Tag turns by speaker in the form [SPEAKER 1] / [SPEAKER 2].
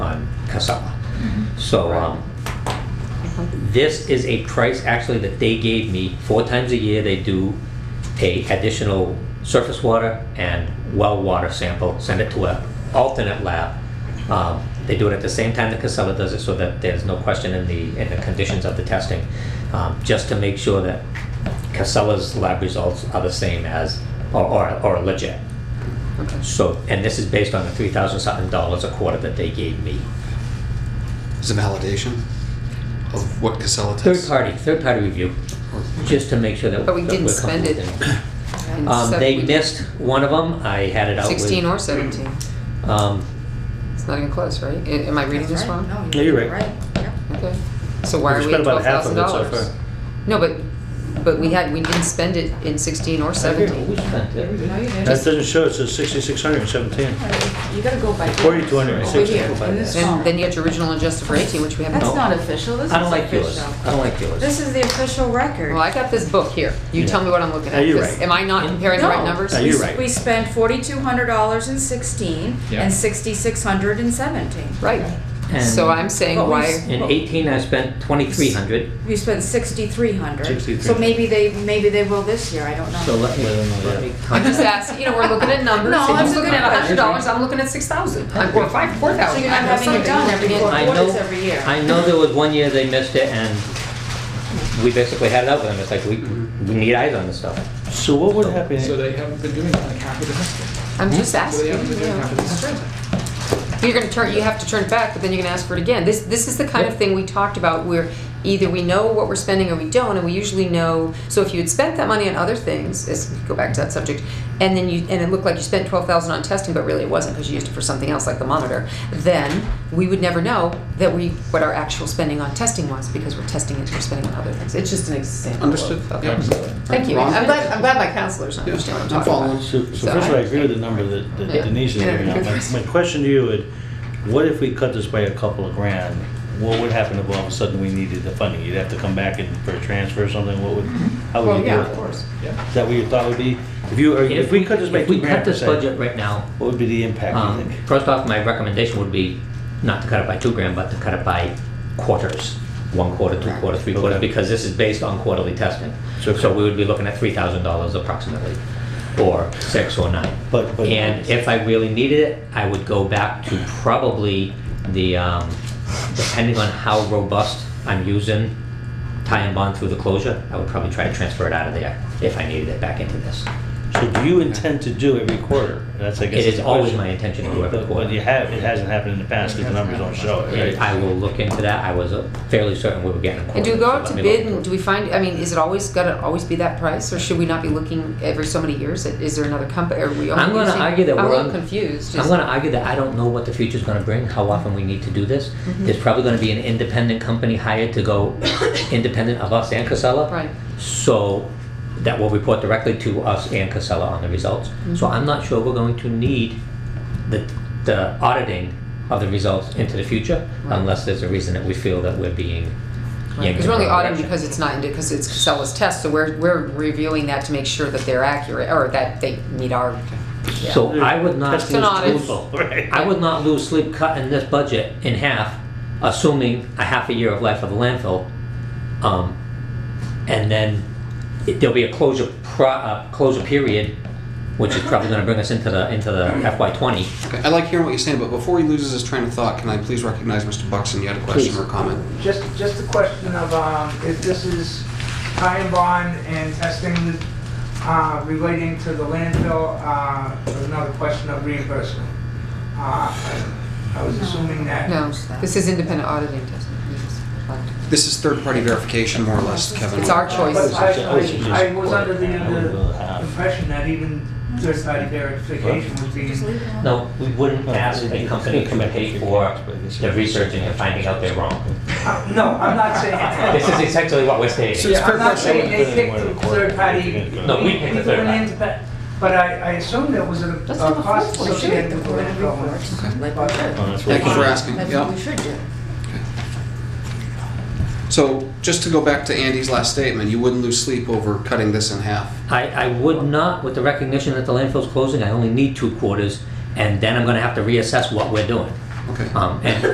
[SPEAKER 1] summer. So, um, this is a price actually that they gave me, four times a year, they do a additional surface water and well water sample, send it to a alternate lab. Um, They do it at the same time that Casella does it, so that there's no question in the, in the conditions of the testing, um, just to make sure that Casella's lab results are the same as, or, or- or legit. So, and this is based on the three thousand something dollars a quarter that they gave me.
[SPEAKER 2] Is it validation of what Casella
[SPEAKER 1] Third
[SPEAKER 2] does?
[SPEAKER 1] party, third party review, just to make sure that.
[SPEAKER 3] But we
[SPEAKER 1] that
[SPEAKER 3] didn't
[SPEAKER 1] we're
[SPEAKER 3] spend it.
[SPEAKER 1] comfortable.
[SPEAKER 3] And
[SPEAKER 1] Um,
[SPEAKER 3] so
[SPEAKER 1] they
[SPEAKER 3] we-
[SPEAKER 1] missed one of them, I had it out with.
[SPEAKER 3] Sixteen or seventeen,
[SPEAKER 1] Um,
[SPEAKER 3] it's not even close, right? A- Am I reading this wrong?
[SPEAKER 4] Yeah, you're right.
[SPEAKER 5] Yep.
[SPEAKER 3] Okay, so why are
[SPEAKER 4] We've
[SPEAKER 3] we at
[SPEAKER 4] spent about
[SPEAKER 3] twelve
[SPEAKER 4] half
[SPEAKER 3] thousand
[SPEAKER 4] of it so
[SPEAKER 3] dollars?
[SPEAKER 4] far.
[SPEAKER 3] No, but, but we had, we didn't spend it in sixteen or
[SPEAKER 1] We
[SPEAKER 3] seventeen.
[SPEAKER 1] spent it.
[SPEAKER 5] No, you didn't.
[SPEAKER 4] That doesn't show, it says sixty-six hundred and seventeen.
[SPEAKER 5] You gotta go by.
[SPEAKER 4] Forty two hundred and
[SPEAKER 5] Over
[SPEAKER 4] sixty.
[SPEAKER 5] here, in this
[SPEAKER 3] And
[SPEAKER 5] column.
[SPEAKER 3] then you had your original adjusted for eighteen, which we haven't.
[SPEAKER 5] That's
[SPEAKER 1] No.
[SPEAKER 5] not official, this is official.
[SPEAKER 1] I don't like yours, I don't like
[SPEAKER 5] This
[SPEAKER 1] yours.
[SPEAKER 5] is the official record.
[SPEAKER 3] Well, I got this book here, you tell me what I'm looking
[SPEAKER 4] Yeah,
[SPEAKER 3] at.
[SPEAKER 4] you're
[SPEAKER 3] 'cause
[SPEAKER 4] right.
[SPEAKER 3] Am I not comparing the right
[SPEAKER 5] No.
[SPEAKER 3] numbers?
[SPEAKER 4] Yeah, you're right.
[SPEAKER 5] We spent forty-two hundred dollars and sixteen
[SPEAKER 6] Yeah.
[SPEAKER 5] and sixty-six hundred and seventeen.
[SPEAKER 3] Right,
[SPEAKER 1] And-
[SPEAKER 3] so I'm saying
[SPEAKER 5] But we
[SPEAKER 3] why,
[SPEAKER 5] s-
[SPEAKER 1] In eighteen, I spent twenty-three hundred,
[SPEAKER 5] We spent sixty-three hundred.
[SPEAKER 4] 6,300.
[SPEAKER 5] So maybe they, maybe they will this year, I don't
[SPEAKER 1] so
[SPEAKER 5] know.
[SPEAKER 1] let me, let me.
[SPEAKER 3] I'm just asking, you know, we're looking at numbers,
[SPEAKER 5] No,
[SPEAKER 3] if
[SPEAKER 5] I'm
[SPEAKER 3] you're looking at
[SPEAKER 5] looking at-
[SPEAKER 3] hundred dollars, I'm looking at six thousand, or five, four
[SPEAKER 5] So
[SPEAKER 3] thousand.
[SPEAKER 5] you're not having it done every four
[SPEAKER 1] I
[SPEAKER 5] quarters
[SPEAKER 1] know-
[SPEAKER 5] every year.
[SPEAKER 1] I know there was one year they missed it and we basically had it out with them, it's like, we, we need eyes on this stuff.
[SPEAKER 4] So what would happen?
[SPEAKER 6] So they haven't been doing like half of the district.
[SPEAKER 3] I'm just
[SPEAKER 6] So they
[SPEAKER 3] asking,
[SPEAKER 6] haven't been
[SPEAKER 3] you
[SPEAKER 6] doing half of
[SPEAKER 3] know.
[SPEAKER 6] the district.
[SPEAKER 3] You're gonna turn, you have to turn it back, but then you're gonna ask for it again. This, this is the kind of thing we talked about where either we know what we're spending or we don't, and we usually know, so if you had spent that money on other things, as, go back to that subject, and then you, and it looked like you spent twelve thousand on testing, but really it wasn't, because you used it for something else like the monitor, then we would never know that we, what our actual spending on testing was, because we're testing it, we're spending on other things. It's just an example. of-
[SPEAKER 2] Understood.
[SPEAKER 3] of-
[SPEAKER 6] Yeah.
[SPEAKER 3] Thank you.
[SPEAKER 2] Ron?
[SPEAKER 3] I'm glad, I'm glad my counselors understand what I'm
[SPEAKER 2] I'm
[SPEAKER 3] talking about.
[SPEAKER 2] following.
[SPEAKER 4] So, so first of all, I agree with the number that that
[SPEAKER 3] Yeah.
[SPEAKER 4] Denise is giving out. My- My question to you is, what if we cut this by a couple of grand? What would happen if all of a sudden we needed the funding? You'd have to come back and for a transfer or something, what would, how
[SPEAKER 3] Mm-hmm.
[SPEAKER 4] would
[SPEAKER 3] Well,
[SPEAKER 4] you
[SPEAKER 3] yeah,
[SPEAKER 4] do
[SPEAKER 3] of
[SPEAKER 4] it?
[SPEAKER 3] course.
[SPEAKER 6] Yeah.
[SPEAKER 4] Is that what your thought would be? If you, or if we cut this by
[SPEAKER 1] If we
[SPEAKER 4] two grand
[SPEAKER 1] cut
[SPEAKER 4] per
[SPEAKER 1] this
[SPEAKER 4] se,
[SPEAKER 1] budget right now,
[SPEAKER 4] what would be the impact, you
[SPEAKER 1] Um,
[SPEAKER 4] think?
[SPEAKER 1] First off, my recommendation would be not to cut it by two grand, but to cut it by quarters. One quarter, two quarter, three quarters,
[SPEAKER 4] Okay.
[SPEAKER 1] because this is based on quarterly testing.
[SPEAKER 4] Sure.
[SPEAKER 1] So we would be looking at three thousand dollars approximately, or six or nine.
[SPEAKER 4] But- but-
[SPEAKER 1] And if I really needed it, I would go back to probably the, um, depending on how robust I'm using tie and bond through the closure, I would probably try to transfer it out of there if I needed it back into this.
[SPEAKER 4] So do you intend to do every quarter? That's, I
[SPEAKER 1] It
[SPEAKER 4] guess.
[SPEAKER 1] is
[SPEAKER 4] the
[SPEAKER 1] always
[SPEAKER 4] question.
[SPEAKER 1] my intention to do every
[SPEAKER 4] But-
[SPEAKER 1] quarter.
[SPEAKER 4] But you have, it hasn't happened in the past because the numbers don't show it,
[SPEAKER 1] And
[SPEAKER 4] right?
[SPEAKER 1] I will look into that, I was uh, fairly certain we were getting a quote.
[SPEAKER 3] And do we go
[SPEAKER 1] so
[SPEAKER 3] out
[SPEAKER 1] let
[SPEAKER 3] to
[SPEAKER 1] me look
[SPEAKER 3] bid
[SPEAKER 1] into
[SPEAKER 3] and do
[SPEAKER 1] it.
[SPEAKER 3] we find, I mean, is it always gotta always be that price or should we not be looking every so many years? Is there another company, are we only
[SPEAKER 1] I'm gonna
[SPEAKER 3] using-
[SPEAKER 1] argue that
[SPEAKER 3] I'm a
[SPEAKER 1] we're
[SPEAKER 3] little
[SPEAKER 1] on-
[SPEAKER 3] confused.
[SPEAKER 1] I'm
[SPEAKER 3] Is-
[SPEAKER 1] gonna argue that I don't know what the future's gonna bring, how often we need to do this.
[SPEAKER 3] Mm-hmm.
[SPEAKER 1] There's probably gonna be an independent company hired to go independent of us and Casella.
[SPEAKER 3] Right,
[SPEAKER 1] So, that will report directly to us and Casella on the results.
[SPEAKER 3] Mm-hmm.
[SPEAKER 1] So I'm not sure we're going to need the, the auditing of the results into the future
[SPEAKER 3] Right.
[SPEAKER 1] unless there's a reason that we feel that we're being yanked
[SPEAKER 3] because
[SPEAKER 1] in
[SPEAKER 3] we're only
[SPEAKER 1] the wrong
[SPEAKER 3] auditing
[SPEAKER 1] direction.
[SPEAKER 3] because it's not, because it's Casella's test, so we're, we're reviewing that to make sure that they're accurate or that they meet our. yeah.
[SPEAKER 1] So I would not.
[SPEAKER 4] Testing is
[SPEAKER 3] Not if-
[SPEAKER 4] brutal, right?
[SPEAKER 1] I would not lose sleep cutting this budget in half, assuming a half a year of life of the landfill. Um, and then it- there'll be a closure pro, uh, closure period, which is probably gonna bring us into the, into the FY twenty.
[SPEAKER 2] Okay, I like hearing what you're saying, but before he loses his train of thought, can I please recognize Mr. Buxton? You had a question
[SPEAKER 1] Please.
[SPEAKER 2] or comment?
[SPEAKER 7] Just, just a question of, um, if this is time bond and testing, uh, relating to the landfill, uh, another question of reimbursement. Uh, I I was assuming that.
[SPEAKER 3] No, this is independent auditing test.
[SPEAKER 2] This is third-party verification, more or less, Kevin.
[SPEAKER 3] It's our choice.
[SPEAKER 7] But I,
[SPEAKER 4] I was just-
[SPEAKER 7] I, I was under the,
[SPEAKER 4] Uh,
[SPEAKER 7] the impression that even third-party verification was being
[SPEAKER 5] Just leave it alone.
[SPEAKER 1] No, we wouldn't ask
[SPEAKER 4] It's
[SPEAKER 1] a
[SPEAKER 4] gonna
[SPEAKER 1] company
[SPEAKER 4] come
[SPEAKER 1] to
[SPEAKER 4] back
[SPEAKER 1] pay
[SPEAKER 4] to
[SPEAKER 1] for
[SPEAKER 4] your-
[SPEAKER 1] the researching and finding out they're wrong.
[SPEAKER 7] Uh, No, I'm not saying.
[SPEAKER 1] This is essentially what we're stating.
[SPEAKER 2] So it's
[SPEAKER 7] Yeah, I'm not saying
[SPEAKER 2] perfect.
[SPEAKER 7] they picked the third party.
[SPEAKER 1] No, we picked the third party.
[SPEAKER 7] But I, I assume there was a a
[SPEAKER 5] Let's have a
[SPEAKER 7] cost
[SPEAKER 5] full report.
[SPEAKER 7] associated with the landfill.
[SPEAKER 5] Like we should.
[SPEAKER 4] Oh, that's what
[SPEAKER 2] Thank you for
[SPEAKER 4] we-
[SPEAKER 2] asking.
[SPEAKER 5] That's what
[SPEAKER 2] Yeah.
[SPEAKER 5] we should do.
[SPEAKER 2] So just to go back to Andy's last statement, you wouldn't lose sleep over cutting this in half.
[SPEAKER 1] I, I would not, with the recognition that the landfill's closing, I only need two quarters, and then I'm gonna have to reassess what we're doing.
[SPEAKER 2] Okay.
[SPEAKER 1] Um, and